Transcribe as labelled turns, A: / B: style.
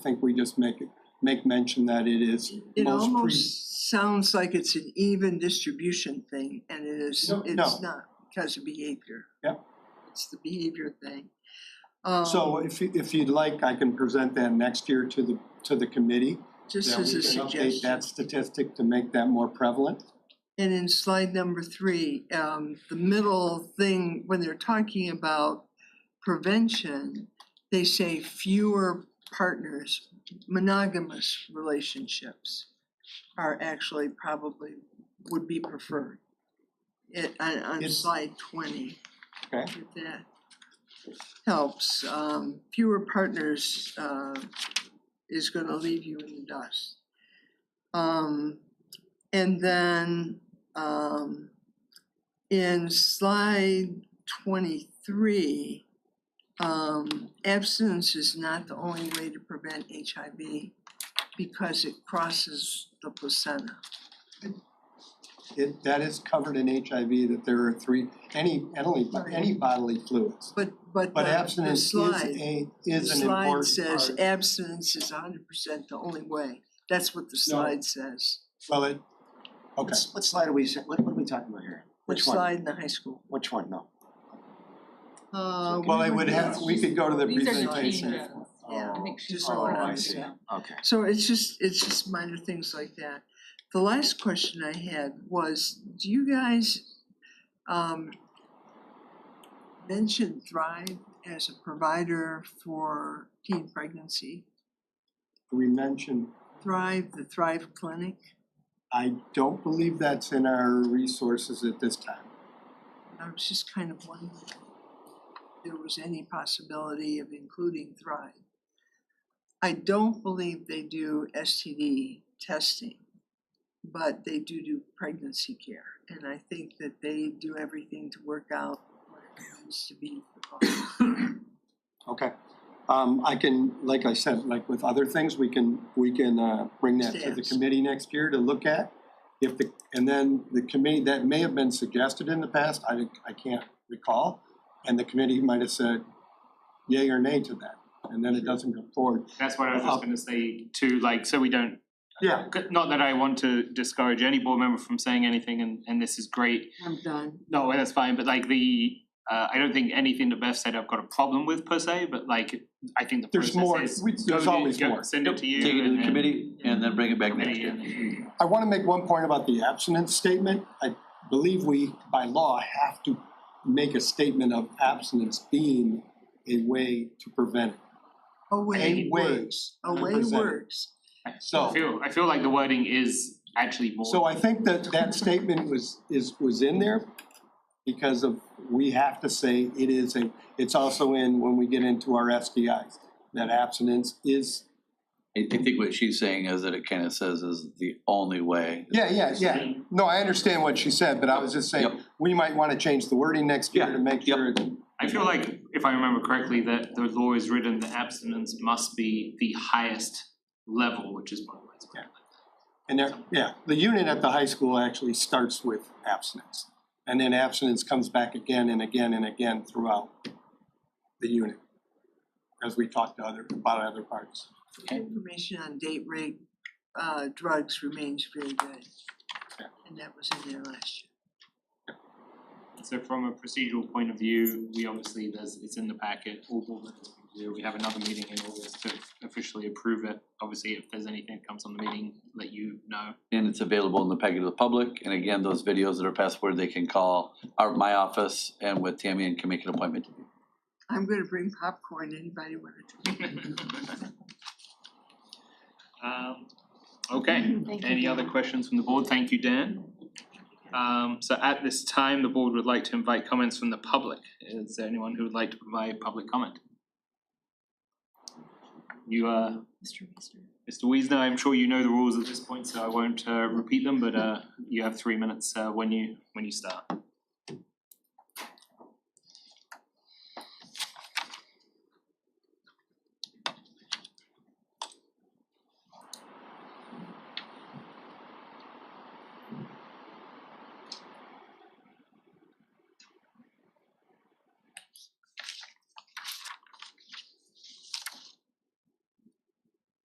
A: think we just make, make mention that it is
B: It
A: most pre-
B: almost sounds like it's an even distribution thing and it is,
A: No, no.
B: it's not because of behavior.
A: Yep.
B: It's the behavior thing.
A: So
B: Um,
A: if, you- if you'd like, I can present that next year to the, to the committee.
B: Just
A: that
B: as
A: we
B: a
A: can update
B: suggestion.
A: That statistic to make that more prevalent.
B: And in slide number three, um, the middle thing, when they're talking about prevention, they say fewer partners, monogamous relationships are actually probably, would be preferred. It, on, on
A: It's-
B: slide twenty.
A: Okay.
B: If that helps, um, fewer partners, uh, is gonna leave you in the dust. Um, and then, um, in slide twenty-three, um, abstinence is not the only way to prevent HIV because it crosses the placenta.
A: It, that is covered in HIV, that there are three, any, any, any bodily fluids.
B: But, but uh, the
A: But
B: the
A: abstinence is
B: slide,
A: a,
B: the
A: is an
B: slide
A: important part.
B: says abstinence is hundred percent the only way. That's what the slide says.
A: Well, it, okay,
C: What's- What slide are we, what, what are we talking about here? Which
B: The
C: one?
B: slide in the high school.
C: Which one? No.
B: Uh, we
A: well, I
B: would
A: would
B: do
A: have, we could go to the
D: These are
B: key
A: presentation.
D: changes.
B: Yeah,
D: I think she's
B: just
C: Oh,
B: what
C: I
B: I'm
C: see.
B: saying.
C: Okay.
B: So it's just, it's just minor things like that. The last question I had was, do you guys um mention Thrive as a provider for teen pregnancy?
A: We mentioned,
B: Thrive, the Thrive Clinic?
A: I don't believe that's in our resources at this time.
B: I was just kind of wondering if there was any possibility of including Thrive. I don't believe they do STD testing, but they do do pregnancy care. And I think that they do everything to work out what it needs to be for moms.
A: Okay, um, I can, like I said, like with other things, we can, we can, uh, bring that to the
B: Stamps.
A: committee next year to look at. If the, and then the committee, that may have been suggested in the past, I, I can't recall, and the committee might have said yay or nay to that, and then it doesn't go forward.
E: That's what I was just gonna say too, like, so we don't,
A: Yeah,
E: not that I want to discourage any board member from saying anything and and this is great.
B: I'm done.
E: No, that's fine, but like the, uh, I don't think anything that Beth said I've got a problem with per se, but like, I think the
A: There's
E: process
A: more,
E: is.
A: we- there's
E: go do-
A: always
E: go
A: more.
E: Send it to you
F: Take it to
E: and
F: the
E: then-
F: committee and then bring it back
E: committee
F: next year.
E: and then-
A: I wanna make one point about the abstinence statement. I believe we, by law, have to make a statement of abstinence being a way to prevent it.
B: Away
A: A way
B: works, away
A: represent-
B: works.
A: So.
E: I feel, I feel like the wording is actually more.
A: So I think that that statement was, is, was in there because of, we have to say it is a, it's also in when we get into our SDIs. That abstinence is,
F: I I think what she's saying is that it kind of says is the only way.
A: yeah, yeah, yeah. No, I understand what she said, but I was just saying,
F: Yep.
A: we might want to change the wording next year to make
F: yep.
A: sure. it's-
E: I feel like, if I remember correctly, that the law is written that abstinence must be the highest level, which is one of the ways.
A: And there, yeah, the unit at the high school actually starts with abstinence. And then abstinence comes back again and again and again throughout the unit. As we talk to other, about other parts.
B: Information on date rape, uh, drugs remains very good.
A: Yeah.
B: And that was in there last year.
E: So from a procedural point of view, we obviously, there's, it's in the packet, all board members can do, we have another meeting in August to officially approve it. Obviously, if there's anything that comes on the meeting, let you know.
F: And it's available in the packet to the public. And again, those videos that are password, they can call our, my office and with Tammy and can make an appointment.
B: I'm gonna bring popcorn, anybody wanna drink?
E: Um, okay, any other questions from the board? Thank you, Dan. Um, so at this time, the board would like to invite comments from the public. Is there anyone who would like to provide public comment? You, uh,
D: Mr. Meester.
E: Mr. Wiesner, I'm sure you know the rules at this point, so I won't uh repeat them, but uh you have three minutes uh when you when you start.